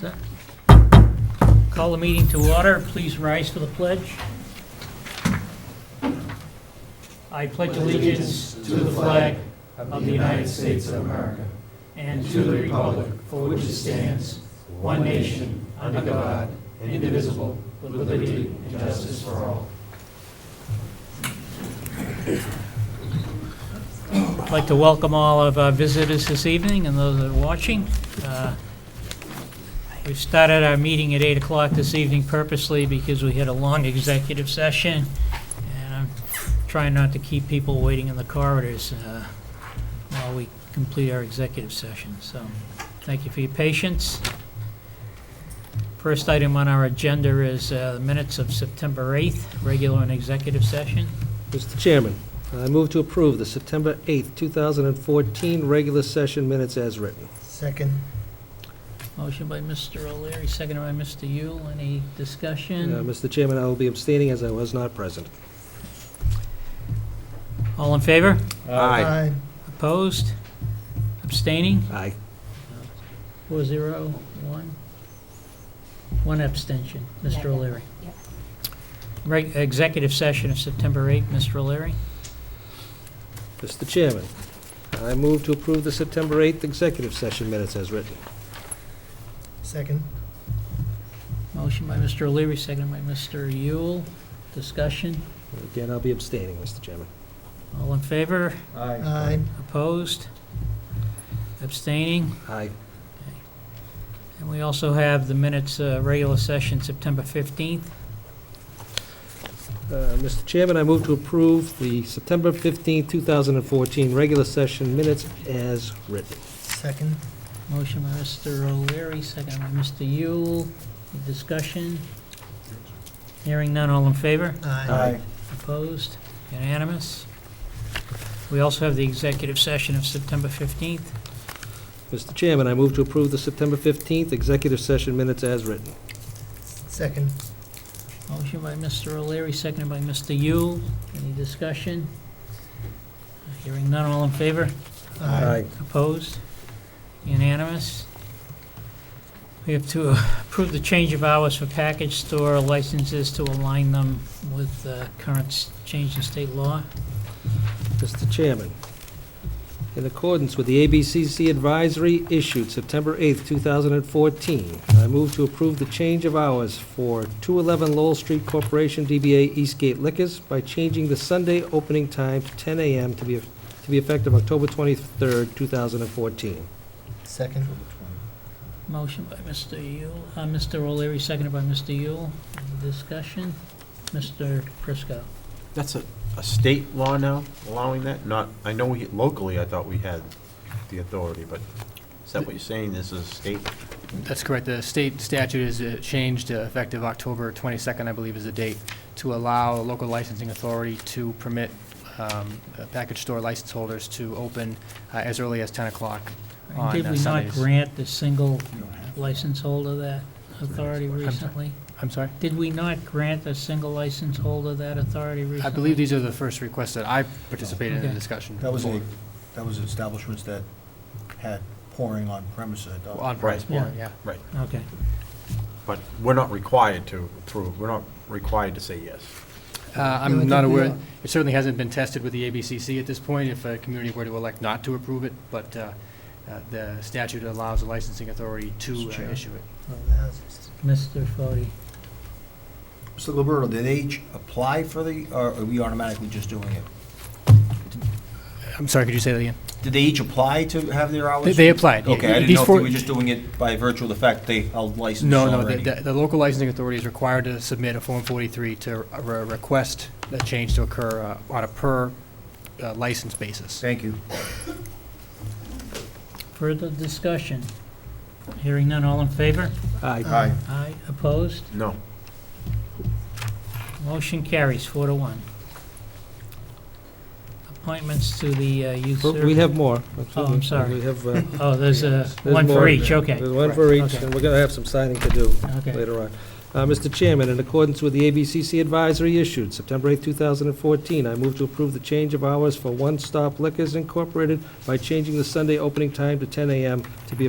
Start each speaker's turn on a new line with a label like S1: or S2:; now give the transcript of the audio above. S1: Set. Call the meeting to order. Please rise for the pledge. I pledge allegiance to the flag of the United States of America and to the republic for which it stands, one nation, under God, indivisible, with liberty and justice for all. I'd like to welcome all of our visitors this evening and those that are watching. Uh, We've started our meeting at 8 o'clock this evening purposely because we had a long executive session, and I'm trying not to keep people waiting in the corridors uh, while we complete our executive session, so thank you for your patience. First item on our agenda is uh, the minutes of September 8th, regular and executive session.
S2: Mr. Chairman, I move to approve the September 8th, 2014 regular session minutes as written.
S3: Second.
S1: Motion by Mr. O'Leary, seconded by Mr. Yule. Any
S2: Uh,
S1: discussion?
S2: Mr. Chairman, I will be abstaining as I was not present.
S1: All in favor?
S2: Aye.
S1: Opposed? Abstaining?
S2: Aye.
S1: Four zero, one. One abstention, Mr. O'Leary.
S4: yeah.
S1: Reg- Executive session of September 8th, Mr. O'Leary.
S2: Mr. Chairman, I move to approve the September 8th executive session minutes as written.
S3: Second.
S1: Motion by Mr. O'Leary, seconded by Mr. Yule. Discussion?
S2: Again, I'll be abstaining, Mr. Chairman.
S1: All in favor?
S3: Aye.
S1: Opposed? Abstaining?
S2: Aye.
S1: And we also have the minutes, uh, regular session, September 15th.
S2: Uh, Mr. Chairman, I move to approve the September 15th, 2014 regular session minutes as written.
S3: Second.
S1: Motion by Mr. O'Leary, second by Mr. Yule. Discussion? Hearing none, all in favor?
S3: Aye.
S1: Opposed? Unanimous? We also have the executive session of September 15th.
S2: Mr. Chairman, I move to approve the September 15th executive session minutes as written.
S3: Second.
S1: Motion by Mr. O'Leary, seconded by Mr. Yule. Any discussion? Hearing none, all in favor? Opposed? Unanimous? We have to approve the change of hours for package store licenses to align them with uh, current s- change in state law.
S2: Mr. Chairman, in accordance with the ABCC advisory issued September 8th, 2014, I move to approve the change of hours for 211 Lowell Street Corporation DBA Eastgate Liquors by changing the Sunday opening time to 10 a.m. to be to be effective October 23rd, 2014.
S3: Second.
S1: Motion by Mr. Yule, uh, Mr. O'Leary, seconded by Mr. Yule. Any Discussion? Mr. Prisco.
S5: That's a, a state law now allowing that? Not, I know we, locally, I thought we had the authority, but is that what you're saying? This is state?
S6: That's correct. The state statute is uh, changed uh, effective October 22nd, I believe is the date, to allow a local licensing authority to permit um, uh, package store license holders to open uh, as early as 10 o'clock. On,
S1: Did
S6: uh,
S1: we not
S6: Sundays.
S1: grant the single license holder that authority
S6: sorry.
S1: recently?
S6: I'm sorry?
S1: Did we not grant a single license holder that authority recently?
S6: I believe these are the first requests that I participated in the
S1: Okay.
S6: discussion.
S7: That was
S6: for.
S7: a, that was establishments that had pouring on premise. I thought.
S6: On price
S1: Right.
S6: board, yeah.
S5: Right.
S1: Okay.
S5: But we're not required to, through, we're not required to say yes.
S6: Uh,
S3: No, I
S6: I'm
S3: think
S6: not
S3: we
S6: aware,
S3: are.
S6: it certainly hasn't been tested with the ABCC at this point, if a community were to elect not to approve it, but uh, uh, the statute allows the licensing authority to
S7: Mr.
S6: uh,
S7: Chair.
S6: issue it.
S3: Well, that's-
S1: Mr. Fode.
S7: Mr. Gilberto, did they each apply for the, or are we automatically just doing it?
S6: I'm sorry, could you say that again?
S7: Did they each apply to have their hours?
S6: They- they applied.
S7: Okay, I didn't
S6: These
S7: know if
S6: four-
S7: they were just doing it by virtue of the fact they held licenses
S6: No, no, the-
S7: already.
S6: the, the local licensing authority is required to submit a Form 43 to uh, re- request the change to occur uh, on a per uh, license basis.
S7: Thank you.
S1: Further discussion? Hearing none, all in favor?
S2: Aye.
S3: Aye.
S1: Aye. Opposed?
S5: No.
S1: Motion carries four to one. Appointments to the uh, youth service.
S2: We have more.
S1: Oh, I'm sorry.
S2: We have, uh,
S1: Oh, there's a,
S2: There's
S1: one for
S2: more.
S1: each, okay.
S2: There's one for each,
S1: Okay.
S2: and we're going to have some signing to do
S1: Okay.
S2: later on. Uh, Mr. Chairman, in accordance with the ABCC advisory issued September 8, 2014, I move to approve the change of hours for One Stop Liquors Incorporated by changing the Sunday opening time to 10 a.m. to be